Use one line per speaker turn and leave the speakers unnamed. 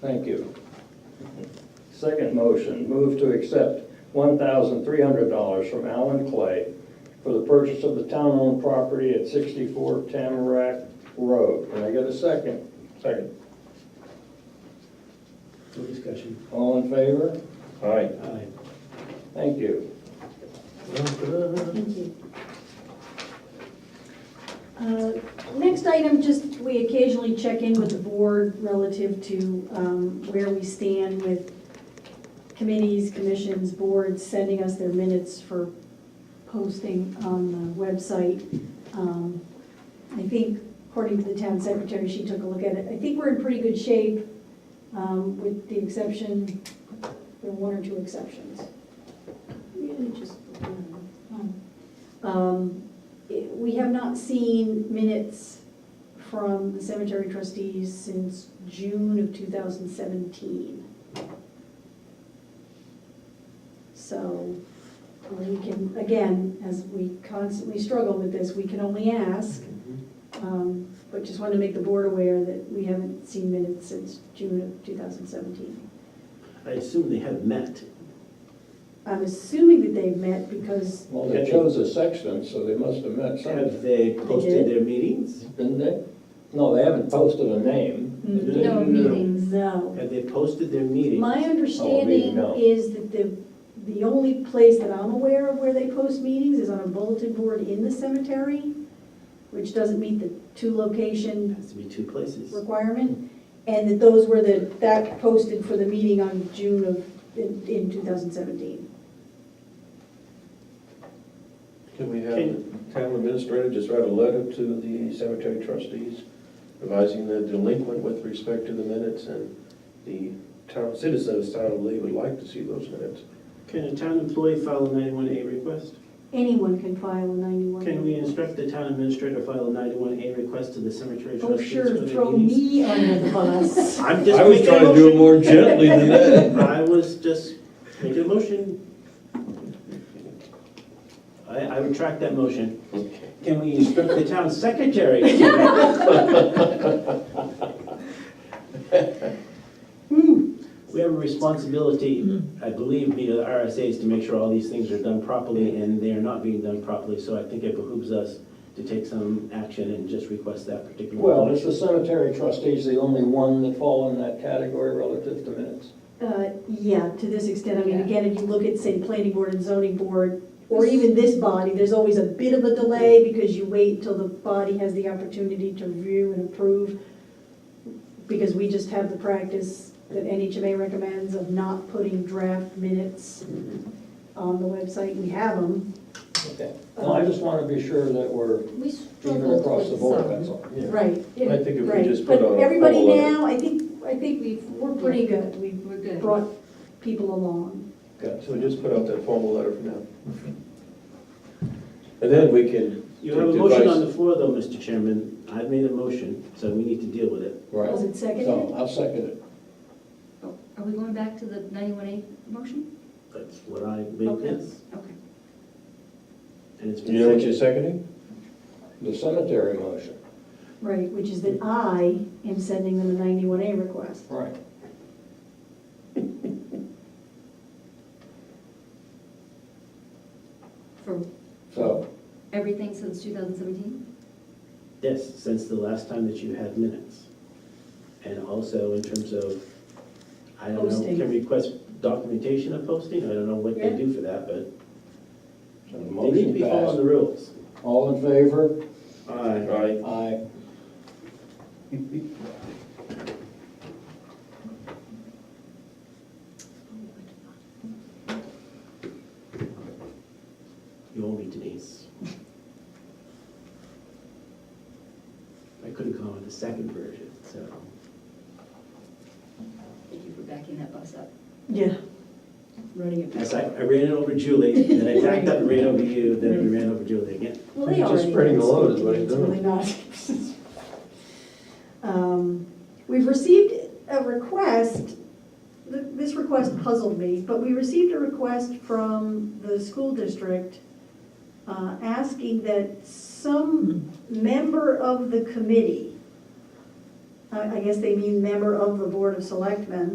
Thank you. Second motion, move to accept $1,300 from Alan Clay for the purchase of the town-owned property at 64 Tamarack Road. Can I get a second?
Second.
No discussion.
All in favor?
Aye.
Aye.
Thank you.
Thank you. Uh, Next item, just, we occasionally check in with the board relative to um, where we stand with committees, commissions, boards sending us their minutes for posting on the website. Um, I think, according to the town secretary, she took a look at it. I think we're in pretty good shape, um, with the exception, there are one or two exceptions. Really just one. Um, it- We have not seen minutes from the cemetery trustees since June of 2017. So we can, again, as we constantly struggle with this, we can only ask, um, but just want to make the board aware that we haven't seen minutes since June of 2017.
I assume they have met.
I'm assuming that they've met because
Well, they chose a sexton, so they must have met some,
Have they posted their meetings?
didn't they? No, they haven't posted a name.
Mm,
No meetings.
No.
Have they posted their meetings?
Oh,
My understanding
no.
is that the, the only place that I'm aware of where they post meetings is on a bulletin board in the cemetery, which doesn't meet the two location
Has to be two places.
requirement, and that those were the, that posted for the meeting on June of, in, in 2017.
Can we have the town administrator just write a letter to the cemetery trustees advising the delinquent with respect to the minutes and the town citizen of town of Lee would like to see those minutes?
Can a town employee file a 91A request?
Anyone can file a 91.
Can we instruct the town administrator to file a 91A request to the cemetery
Oh,
trustees for
sure,
their
throw
meetings?
me under the bus.
I'm just
I was
making a
trying to do it
motion.
more gently than that.
I was just making a motion. I, I retract that motion. Can we instruct the town secretary?
Hmm.
Whew. We have a responsibility, I believe, via the RSA's to make sure all these things are done properly, and they are not being done properly, so I think it behooves us to take some action and just request that particular.
Well, is the cemetery trustees the only one that fall in that category relative to minutes?
Uh, Yeah, to this extent, I mean,
Yeah.
again, if you look at, say, planning board and zoning board, or even this body, there's always a bit of a delay because you wait until the body has the opportunity to review and approve, because we just have the practice that NHMA recommends of not putting draft minutes on the website, we have them.
Okay. Well, I just want to be sure that we're
We
even
struggled
across the board,
with
that's
some.
all.
Right.
I think if we
Right,
just put on a
But
poll.
everybody
letter-
now, I think, I think we've, we're pretty good, we've
We're good.
brought people along.
Okay.
So just put out that formal letter for now. And then we can.
You have a
take
motion
advice.
on the floor, though, Mr. Chairman. I've made a motion, so we need to deal with it.
Right.
Was it seconded?
So I'll second it.
Oh, Are we going back to the 91A motion?
That's what I made this,
Okay.
and it's
You know
been
what you're
seconded.
seconding?
The cemetery motion.
Right, which is that I am sending them a 91A request.
Right.
For
So,
everything since 2017?
Yes, since the last time that you had minutes. And also in terms of, I don't know,
Posting.
can request documentation of posting? I don't know what they
Yeah.
do for that, but
so the
they need to
motion
be following
passed.
the rules.
All in favor?
Aye.
Aye.
Aye.
You owe me Denise. I couldn't come up with the second version, so.
Thank you for backing that bus up,
Yeah.
running it back.
As I, I ran it over Julie, then I backed up and ran over you, then we ran over Julie again.
Well, they
He's just
already.
spreading the load is what he's
It's really not. Um, We've received a request, th- this request puzzled me, but we received a request from the school district uh, asking that some member of the committee I I guess they mean member of the Board of Selectmen.